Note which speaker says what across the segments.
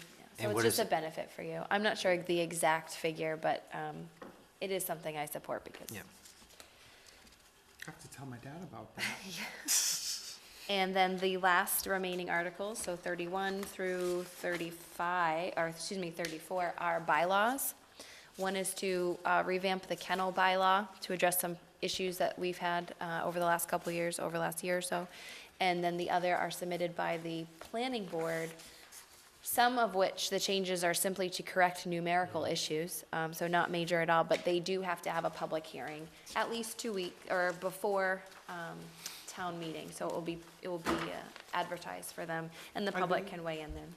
Speaker 1: So
Speaker 2: And
Speaker 1: it's
Speaker 2: what
Speaker 1: just
Speaker 2: is
Speaker 1: a
Speaker 2: it?
Speaker 1: benefit for you. I'm not sure the exact figure, but um, it is something I support because.
Speaker 2: Yeah.
Speaker 3: I have to tell my dad about that.
Speaker 1: And then the last remaining articles, so 31 through 35, or excuse me, 34, are bylaws. One is to uh, revamp the kennel bylaw to address some issues that we've had uh, over the last couple of years, over the last year or so. And then the other are submitted by the planning board, some of which the changes are simply to correct numerical issues, um, so not major at all, but they do have to have a public hearing at least two week, or before um, town meeting, so it will be, it will be uh, advertised for them, and the public can weigh in then.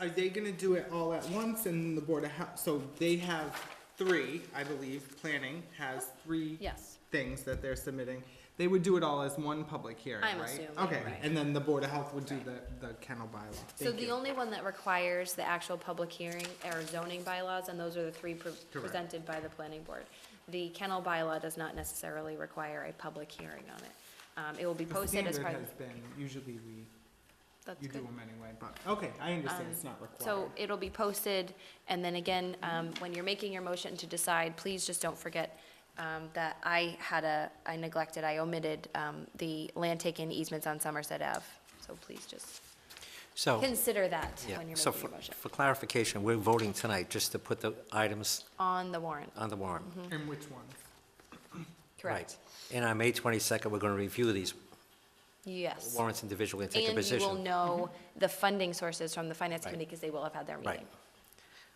Speaker 3: Are they gonna do it all at once in the Board of Health? So they have three, I believe, planning has three
Speaker 1: Yes.
Speaker 3: things that they're submitting. They would do it all as one public hearing, right?
Speaker 1: I'm assuming,
Speaker 3: Okay,
Speaker 1: right.
Speaker 3: and then the Board of Health would do the, the kennel bylaw.
Speaker 1: So
Speaker 3: Thank
Speaker 1: the
Speaker 3: you.
Speaker 1: only one that requires the actual public hearing are zoning bylaws, and those are the three pre- presented by the planning board. The kennel bylaw does not necessarily require a public hearing on it. Um, It will be
Speaker 3: The
Speaker 1: posted as
Speaker 3: standard
Speaker 1: part of,
Speaker 3: has been, usually we,
Speaker 1: that's
Speaker 3: you do
Speaker 1: good. Um,
Speaker 3: them anyway, but, okay, I understand, it's not required.
Speaker 1: So it'll be posted, and then again, um, when you're making your motion to decide, please just don't forget um, that I had a, I neglected, I omitted um, the land taken easements on Somerset Ave. So please just
Speaker 2: So,
Speaker 1: consider that
Speaker 2: Oh. yeah,
Speaker 1: when you're
Speaker 2: so
Speaker 1: making
Speaker 2: for
Speaker 1: your motion.
Speaker 2: for clarification, we're voting tonight just to put the items
Speaker 1: On the warrant,
Speaker 2: on the warrant.
Speaker 1: mm.
Speaker 3: And which ones?
Speaker 1: Mm-hmm. correct?
Speaker 2: Uh, Right. And on May 22nd, we're going to review these
Speaker 1: Yes.
Speaker 2: warrants individually and take a
Speaker 1: And you
Speaker 2: position. Mm-hmm.
Speaker 1: will know the funding sources from the finance committee because they will have had their
Speaker 2: Right.
Speaker 1: meeting.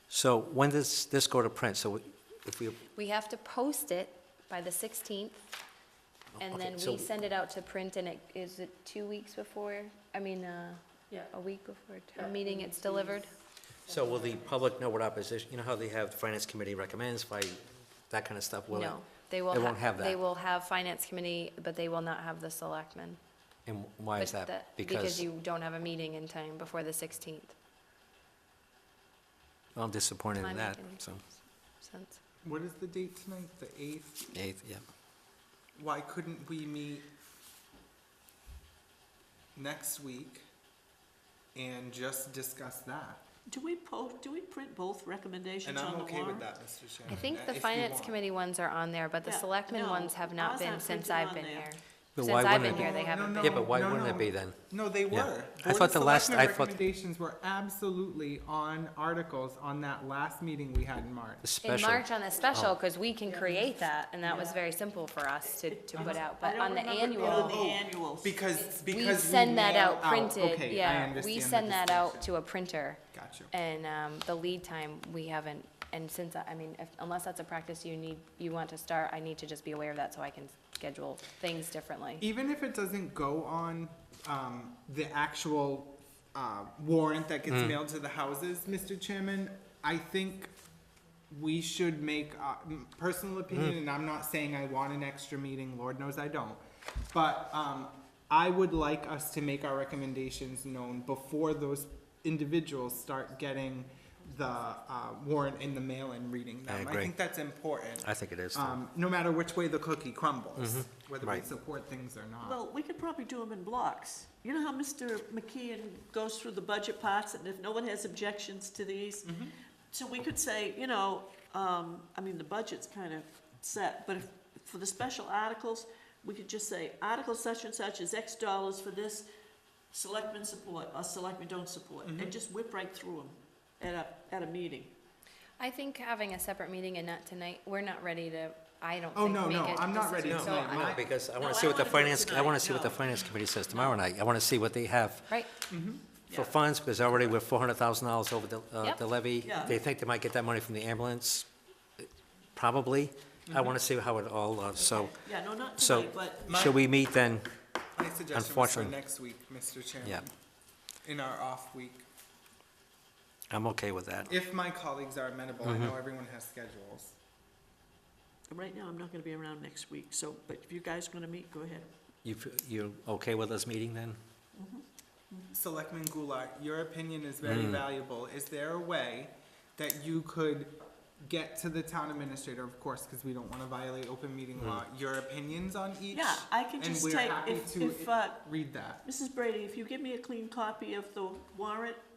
Speaker 2: So when does this go to print? So if we,
Speaker 1: We have to post it by the 16th, and
Speaker 2: Okay,
Speaker 1: then we
Speaker 2: so-
Speaker 1: send it out to print, and it, is it two weeks before? I mean, uh,
Speaker 4: Yeah.
Speaker 1: a week before town meeting it's delivered?
Speaker 2: so will the public know what opposition, you know how they have the finance committee recommends, by that kind of stuff? Will it-
Speaker 1: No, they will.
Speaker 2: They
Speaker 1: ha-
Speaker 2: won't have
Speaker 1: They
Speaker 2: that.
Speaker 1: will have finance committee, but they will not have the selectmen.
Speaker 2: And why is
Speaker 1: But
Speaker 2: that?
Speaker 1: Because
Speaker 2: Because,
Speaker 1: you don't have a meeting in time before the 16th.
Speaker 2: I'm disappointed
Speaker 1: I'm
Speaker 2: in that,
Speaker 1: making-
Speaker 2: so,
Speaker 1: Since-
Speaker 3: What is the date tonight, the eighth?
Speaker 2: eighth, yeah.
Speaker 3: Why couldn't we meet next week and just discuss that?
Speaker 4: Do we po, do we print both recommendations
Speaker 3: And
Speaker 4: on the
Speaker 3: I'm
Speaker 4: warrant?
Speaker 3: okay with that, Mr. Chairman.
Speaker 1: I think
Speaker 3: uh,
Speaker 1: the
Speaker 3: if you
Speaker 1: finance
Speaker 3: want.
Speaker 1: committee ones are on there, but the
Speaker 4: Yeah,
Speaker 1: selectmen
Speaker 4: no,
Speaker 1: ones have not
Speaker 4: ours
Speaker 1: been
Speaker 4: aren't
Speaker 1: since
Speaker 4: printed
Speaker 1: I've
Speaker 4: on
Speaker 1: been
Speaker 4: there.
Speaker 1: here.
Speaker 2: But
Speaker 1: Since
Speaker 2: why
Speaker 1: I've
Speaker 2: wouldn't
Speaker 1: been
Speaker 2: it
Speaker 1: here,
Speaker 2: be?
Speaker 1: they haven't
Speaker 3: No,
Speaker 1: been.
Speaker 2: Yeah, but why
Speaker 3: no,
Speaker 2: wouldn't
Speaker 3: no.
Speaker 2: it be then?
Speaker 3: No, they
Speaker 2: Yeah.
Speaker 3: were.
Speaker 2: I
Speaker 3: Board
Speaker 2: thought
Speaker 3: of
Speaker 2: the last-
Speaker 3: Selectmen
Speaker 2: I thought-
Speaker 3: Recommendations were absolutely on articles on that last meeting we had in March.
Speaker 2: The
Speaker 1: In
Speaker 2: special,
Speaker 1: March on the
Speaker 3: Oh.
Speaker 1: special, because we can create that, and that was very simple for us to, to put out,
Speaker 4: I
Speaker 1: but
Speaker 4: don't
Speaker 1: on the
Speaker 4: remember
Speaker 1: annual,
Speaker 4: doing the annuals.
Speaker 3: Because, because
Speaker 1: we send that
Speaker 3: mail
Speaker 1: out printed,
Speaker 3: okay, I
Speaker 1: yeah,
Speaker 3: understand
Speaker 1: we
Speaker 3: the
Speaker 1: send that out
Speaker 3: distinction.
Speaker 1: to a printer.
Speaker 3: Gotcha.
Speaker 1: And, um, the lead time, we haven't, and since, I I mean, if, unless that's a practice you need, you want to start, I need to just be aware of that so I can schedule things differently.
Speaker 3: Even if it doesn't go on, um, the actual, uh, warrant that
Speaker 2: Mm.
Speaker 3: gets mailed to the houses, Mr. Chairman, I think we should make, uh, m-
Speaker 2: Mm.
Speaker 3: personal opinion, and I'm not saying I want an extra meeting, Lord knows I don't. But, um, I would like us to make our recommendations known before those individuals start getting the, uh, warrant in the mail and reading them. I
Speaker 2: agree.
Speaker 3: think that's important.
Speaker 2: I think it is, too. Mm-hmm.
Speaker 3: Um, no matter which way the cookie crumbles, whether we
Speaker 2: Right.
Speaker 3: support things or not.
Speaker 4: Well, we could probably do them in blocks. You know how Mr. McKeon goes through the budget parts, and if no one has objections to these?
Speaker 3: Mm-hmm.
Speaker 4: So we could say, you know, um, I mean, the budget's kind of set, but if, for the special articles, we could just say, article such and such is X dollars for this, selectmen support, or selectmen don't support,
Speaker 3: Mm-hmm.
Speaker 4: and just whip right through them at a, at a meeting.
Speaker 1: I think having a separate meeting and not tonight, we're not ready to, I don't
Speaker 3: Oh,
Speaker 1: think
Speaker 3: no,
Speaker 1: make a
Speaker 3: no, I'm not ready
Speaker 1: decision,
Speaker 2: No,
Speaker 1: so
Speaker 3: tonight.
Speaker 1: I-
Speaker 2: no,
Speaker 3: I-
Speaker 2: because I
Speaker 4: No, I
Speaker 2: want to see what the
Speaker 4: don't wanna do it
Speaker 2: finance, I want to see what the
Speaker 4: tonight, no.
Speaker 2: finance committee says tomorrow night. I want to see what they have
Speaker 1: Right,
Speaker 2: for
Speaker 4: Yeah.
Speaker 2: funds, because already we're four hundred thousand dollars over the, uh,
Speaker 1: Yep.
Speaker 2: the levy.
Speaker 4: Yeah.
Speaker 2: They think they might get that money from the ambulance, probably. I want to see how it all, uh, so,
Speaker 4: Yeah, no, not
Speaker 2: so,
Speaker 4: tonight, Mm-hmm. but.
Speaker 2: should we meet then?
Speaker 3: My suggestion was for
Speaker 2: Unfortunately.
Speaker 3: next week, Mr. Chairman, in our off week,
Speaker 2: I'm okay with that.
Speaker 3: if my colleagues are amenable, I know everyone has schedules.
Speaker 4: Right now, I'm not gonna be around next week, so, but if you guys wanna meet, go ahead.
Speaker 2: You, you're okay with us meeting then?
Speaker 3: Selectman Goulart, your opinion is very valuable. Is there a way that you could get to the town administrator, of course, because we don't want to violate open meeting law, your opinions on each?
Speaker 4: Yeah, I can just
Speaker 3: And we're
Speaker 4: take,
Speaker 3: happy
Speaker 4: if,
Speaker 3: to
Speaker 4: if, uh,
Speaker 3: read that.
Speaker 4: Mrs. Brady, if you give me a clean copy of the warrant,